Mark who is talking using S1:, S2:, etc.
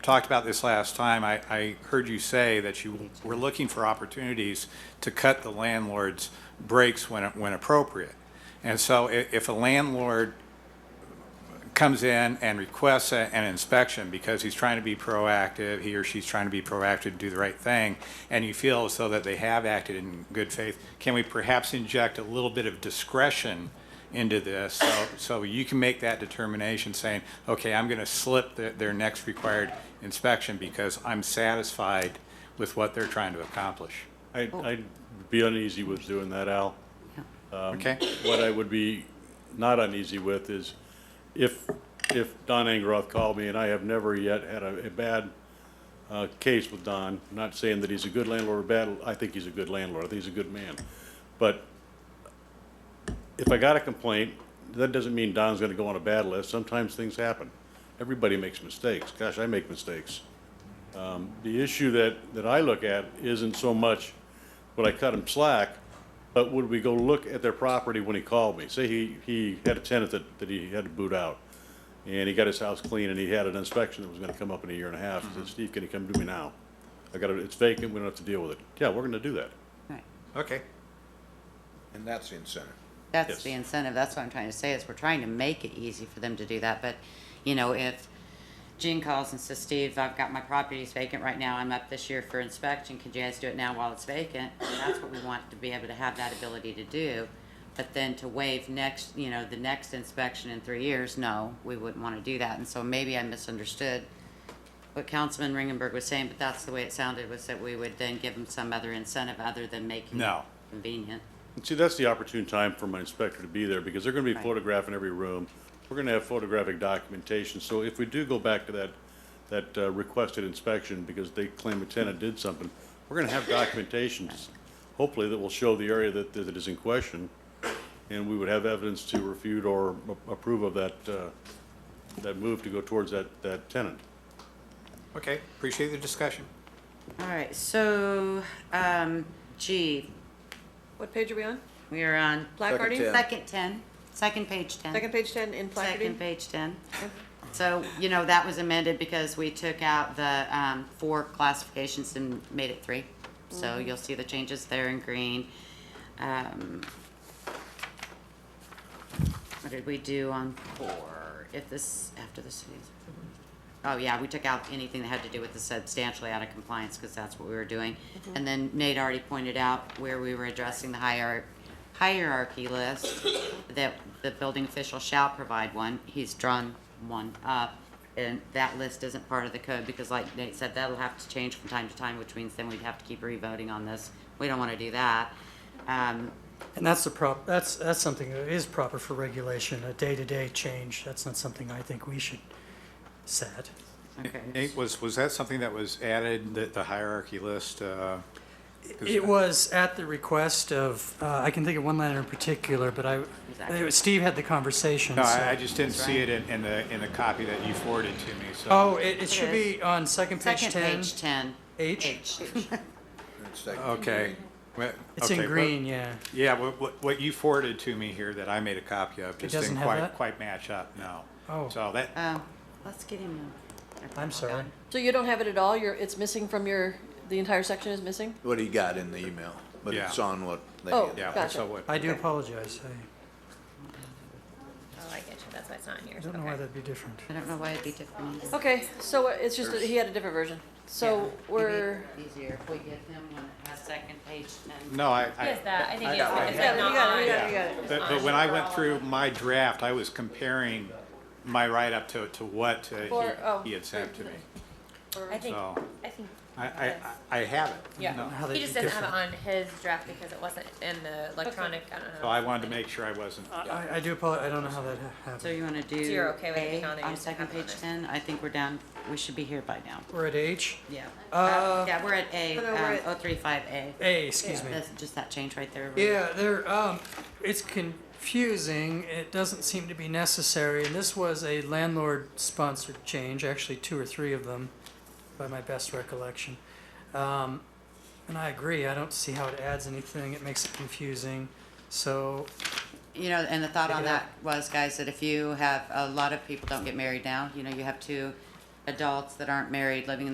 S1: talked about this last time, I, I heard you say that you were looking for opportunities to cut the landlord's breaks when, when appropriate. And so i- if a landlord comes in and requests a- an inspection because he's trying to be proactive, he or she's trying to be proactive, do the right thing, and you feel as though that they have acted in good faith, can we perhaps inject a little bit of discretion into this? So, so you can make that determination saying, okay, I'm gonna slip their, their next required inspection because I'm satisfied with what they're trying to accomplish.
S2: I, I'd be uneasy with doing that, Al.
S1: Okay?
S2: What I would be not uneasy with is if, if Don Engroth called me, and I have never yet had a, a bad, uh, case with Don, not saying that he's a good landlord or bad, I think he's a good landlord, I think he's a good man. But if I got a complaint, that doesn't mean Don's gonna go on a bad list, sometimes things happen. Everybody makes mistakes, gosh, I make mistakes. Um, the issue that, that I look at isn't so much would I cut him slack, but would we go look at their property when he called me? Say he, he had a tenant that, that he had to boot out, and he got his house clean, and he had an inspection that was gonna come up in a year and a half. He said, Steve, can you come do me now? I got it, it's vacant, we don't have to deal with it. Yeah, we're gonna do that.
S3: Right.
S1: Okay.
S4: And that's the incentive.
S3: That's
S2: Yes.
S3: the incentive, that's what I'm trying to say, is we're trying to make it easy for them to do that, but, you know, if Gene calls and says, Steve, I've got my properties vacant right now, I'm up this year for inspection, could you guys do it now while it's vacant? And that's what we want to be able to have that ability to do, but then to waive next, you know, the next inspection in three years, no, we wouldn't wanna do that, and so maybe I misunderstood what Councilman Ringenberg was saying, but that's the way it sounded, was that we would then give them some other incentive other than making it
S1: No.
S3: convenient.
S2: And See, that's the opportune time for my inspector to be there, because they're gonna be
S3: Right.
S2: photographing every room. We're gonna have photographic documentation, so if we do go back to that, that uh, requested inspection, because they claim a tenant did something, we're gonna have documentations, hopefully, that will show the area that, that is in question, and we would have evidence to refute or a- approve of that, uh, that move to go towards that, that tenant.
S1: Okay, appreciate the discussion.
S3: All right, so, um, G,
S5: What page are we on?
S3: we are on
S5: Placarding?
S4: Second
S3: second ten, second page ten.
S5: Second page ten in placarding?
S3: Second page ten. So, you know, that was amended because we took out the, um, four classifications and made it three. So you'll see the changes there in green. Um, what did we do on four? If this, after the city's. Oh, yeah, we took out anything that had to do with the substantially out of compliance, because that's what we were doing. And then Nate already pointed out where we were addressing the hierarchy, hierarchy list, that the building official shall provide one, he's drawn one up. And that list isn't part of the code, because like Nate said, that'll have to change from time to time, which means then we'd have to keep revoting on this. We don't want to do that. Um,
S6: And that's the prop, that's, that's something that is proper for regulation, a day-to-day change, that's not something I think we should set.
S3: okay.
S1: Nate, was, was that something that was added, the, the hierarchy list, uh? 'cause-
S6: It was at the request of, uh, I can think of one letter in particular, but I, it was- Steve had the conversation,
S1: No,
S6: so-
S1: I, I just didn't see it in, in the, in the copy that you forwarded to me, so.
S6: Oh, it, it should
S3: is.
S6: be on second page
S3: Second
S6: ten.
S3: page ten.
S6: H?
S4: It's like-
S1: Okay. Well,
S6: It's
S1: okay,
S6: in
S1: what-
S6: green, yeah.
S1: Yeah, what, what, what you forwarded to me here that I made a copy of just
S6: doesn't
S1: didn't
S6: have
S1: quite,
S6: that?
S1: quite match up, no.
S6: Oh.
S1: So that,
S5: Uh,
S3: Oh, let's get him. a-
S6: I'm sorry.
S5: So you don't have it at all? You're, it's missing from your, the entire section is missing?
S4: What he got in the email, but
S1: Yeah.
S4: it's on what they.
S5: Oh.
S4: did.
S1: yeah,
S5: Gotcha.
S1: so what,
S6: I do apologize, I
S7: Oh, I get you. That's why it's not in yours.
S6: don't know why
S7: Okay.
S6: that'd be different.
S3: I don't know why it'd be different.
S5: Okay, so it's just, that he had a different version. So we're,
S3: Easier if we get him one that has second page ten.
S1: no, I,
S7: Yes,
S1: I,
S7: that. I think it's,
S5: you
S7: it's
S5: got it, you
S7: not
S5: got it, you
S7: on.
S5: got it, you got it.
S1: but, but when I went through my draft, I was comparing my write-up to, to what uh,
S5: Or- oh.
S1: he, he had sent to me.
S7: I think.
S1: So,
S7: I think.
S1: I, I, I I have it.
S7: Yeah.
S1: No.
S6: How
S7: He
S6: they'd
S7: just
S6: be
S7: doesn't have it
S6: different.
S7: on his draft because it wasn't in the electronic. I don't know.
S1: So I wanted to make sure I wasn't, yeah.
S6: I, I do apologize, I don't know how that ha-
S3: So
S6: happened.
S3: you wanna do
S7: you're okay with it
S3: A
S7: being on there,
S3: on
S7: you just
S3: second
S7: have it on
S3: page
S7: there.
S3: ten? I think we're down, we should be here by now.
S6: We're at H?
S3: Yeah.
S6: Uh,
S3: Yeah, we're at A,
S5: No, no, we're
S3: um,
S5: at-
S3: oh three five A.
S6: A, excuse me.
S3: That's just that change right there. right?
S6: Yeah, there. Um, it's confusing. It doesn't seem to be necessary. And this was a landlord-sponsored change, actually two or three of them, by my best recollection. Um, and I agree. I don't see how it adds anything. It makes it confusing. So
S3: You know, and the thought on
S6: it out.
S3: that was, guys, that if you have, a lot of people don't get married now, you know, you have two, a adults that aren't married living in